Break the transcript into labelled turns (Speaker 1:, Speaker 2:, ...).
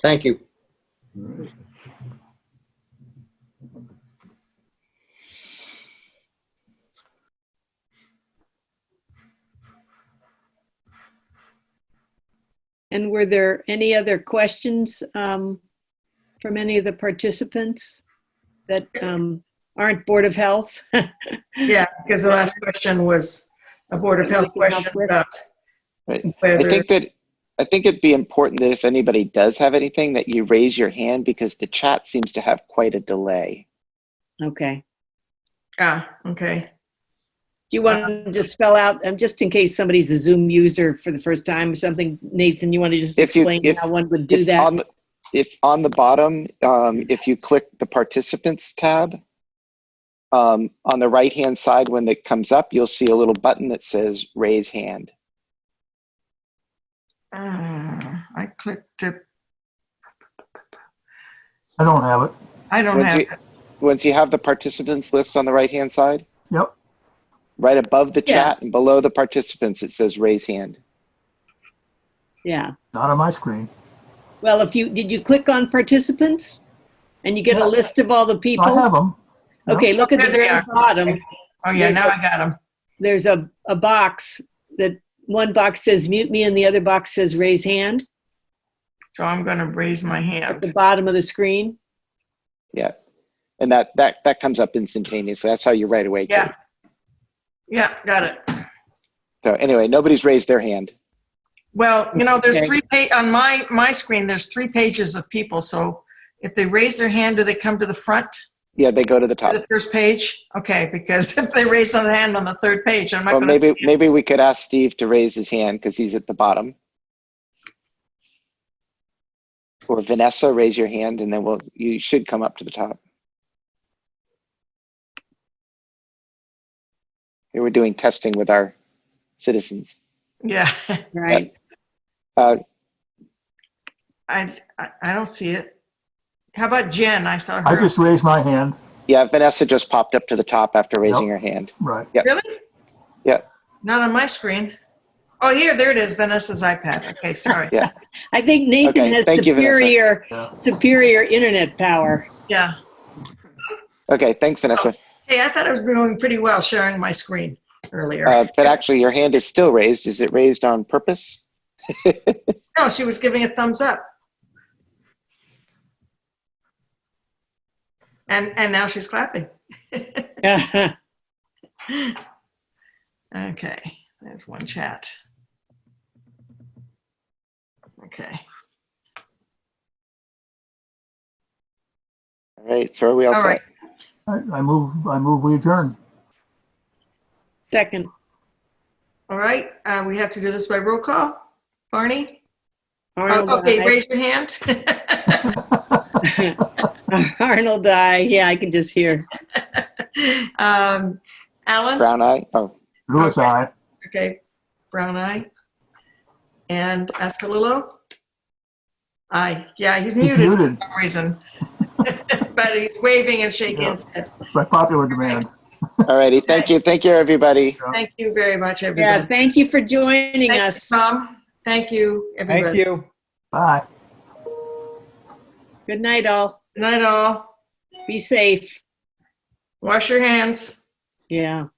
Speaker 1: Thank you.
Speaker 2: And were there any other questions um, from any of the participants that um, aren't Board of Health?
Speaker 3: Yeah, because the last question was a Board of
Speaker 2: That we
Speaker 3: Health
Speaker 2: can help
Speaker 3: question
Speaker 2: with.
Speaker 3: about
Speaker 4: Right. I
Speaker 3: whether,
Speaker 4: think that, I think it'd be important that if anybody does have anything, that you raise your hand because the chat seems to have quite a delay.
Speaker 2: Okay.
Speaker 3: ah, okay.
Speaker 2: Do you
Speaker 4: Uh,
Speaker 2: want to just spell out, um, just in case somebody's a Zoom user for the first time or something, Nathan, you want to just
Speaker 4: If you-
Speaker 2: explain
Speaker 4: if-
Speaker 2: how one would do
Speaker 4: If
Speaker 2: that?
Speaker 4: on the- If on the bottom, um, if you click the participants tab, um, on the right-hand side, when it comes up, you'll see a little button that says raise hand.
Speaker 3: Ah, I clicked it.
Speaker 5: I don't have it.
Speaker 3: I
Speaker 2: Uh-huh.
Speaker 3: don't
Speaker 4: Once
Speaker 3: have,
Speaker 4: you, once you have the participants list on the right-hand side,
Speaker 5: Yep.
Speaker 4: right above the
Speaker 2: Yeah.
Speaker 4: chat and below the participants, it says raise hand.
Speaker 2: Yeah.
Speaker 5: Not on my screen.
Speaker 2: Well, if you, did you click on participants? And you get a
Speaker 5: Yeah.
Speaker 2: list of all the
Speaker 5: I have
Speaker 2: people?
Speaker 5: them. no.
Speaker 2: Okay, look at the
Speaker 3: uh-huh. There they
Speaker 2: very
Speaker 3: are.
Speaker 2: bottom.
Speaker 3: oh yeah, now I got them.
Speaker 2: there's a, a box that one box says mute me and the other box says raise hand
Speaker 3: So I'm going to raise my
Speaker 2: at the
Speaker 3: hand.
Speaker 2: bottom of the screen.
Speaker 4: Yeah. And that, that, that comes up instantaneously. That's how you right away. can-
Speaker 3: Yeah. Yeah, got it.
Speaker 4: So anyway, nobody's raised their hand.
Speaker 3: Well, you know, there's
Speaker 2: Okay.
Speaker 3: three, pa- on my, my screen, there's three pages of people, so if they raise their hand, do they come to the front,
Speaker 4: Yeah, they go to the
Speaker 3: to
Speaker 4: top.
Speaker 3: the first page? Okay, because if they raise their hand on the third page, I'm not
Speaker 4: Well,
Speaker 3: going to,
Speaker 4: Oh, maybe, maybe we could ask Steve to raise his hand because he's at the bottom. Or Vanessa, raise your hand and then we'll, you should come up to the top. Here we're doing testing with our citizens.
Speaker 3: yeah,
Speaker 2: Right.
Speaker 3: I, I- I don't see it. How about Jen? I saw her.
Speaker 5: I just raised my hand.
Speaker 4: Yeah, Vanessa just popped up to the top after raising her hand.
Speaker 5: Right.
Speaker 3: Really?
Speaker 4: Yeah.
Speaker 3: Not on my screen. Oh, here, there it is, Vanessa's iPad. Okay, sorry.
Speaker 4: Yeah.
Speaker 2: I think Nathan
Speaker 4: Okay,
Speaker 2: has
Speaker 4: thank you, Vanessa.
Speaker 2: superior
Speaker 5: Yeah.
Speaker 2: superior internet power.
Speaker 3: Yeah.
Speaker 4: Okay, thanks, Vanessa.
Speaker 3: Hey, I thought I was doing pretty well sharing my screen earlier.
Speaker 4: Uh, but actually, your hand is still raised. Is it raised on purpose?
Speaker 3: No, she was giving a thumbs up. And, and now she's clapping. Okay, there's one chat. Okay,
Speaker 4: All right, so are we all
Speaker 3: all
Speaker 4: set?
Speaker 3: right.
Speaker 5: I, I move. I move. We adjourn.
Speaker 2: Second,
Speaker 3: All right, uh, we have to do this by roll call. Barney?
Speaker 2: Arnold.
Speaker 3: Oh, Okay,
Speaker 2: I.
Speaker 3: raise your hand.
Speaker 2: Arnold, I. Yeah, I can just hear.
Speaker 3: Um, Alan?
Speaker 4: Brown eye. Oh,
Speaker 5: Louis,
Speaker 3: Okay.
Speaker 5: I.
Speaker 3: Okay, brown eye. And Askalillo? Aye, yeah, he's
Speaker 5: He's
Speaker 3: muted for
Speaker 5: muted
Speaker 3: some reason. But he's waving and shaking his head.
Speaker 5: by popular demand.
Speaker 4: all righty. Thank you. Thank you, everybody.
Speaker 3: Thank you very much,
Speaker 2: Yeah,
Speaker 3: everybody.
Speaker 2: thank you for joining
Speaker 3: Thank you,
Speaker 2: us.
Speaker 3: Tom, thank you,
Speaker 6: Thank
Speaker 3: everybody.
Speaker 6: you.
Speaker 5: Bye.
Speaker 2: Good night, all.
Speaker 3: Good night, all.
Speaker 2: Be safe.
Speaker 3: Wash your hands.
Speaker 2: Yeah.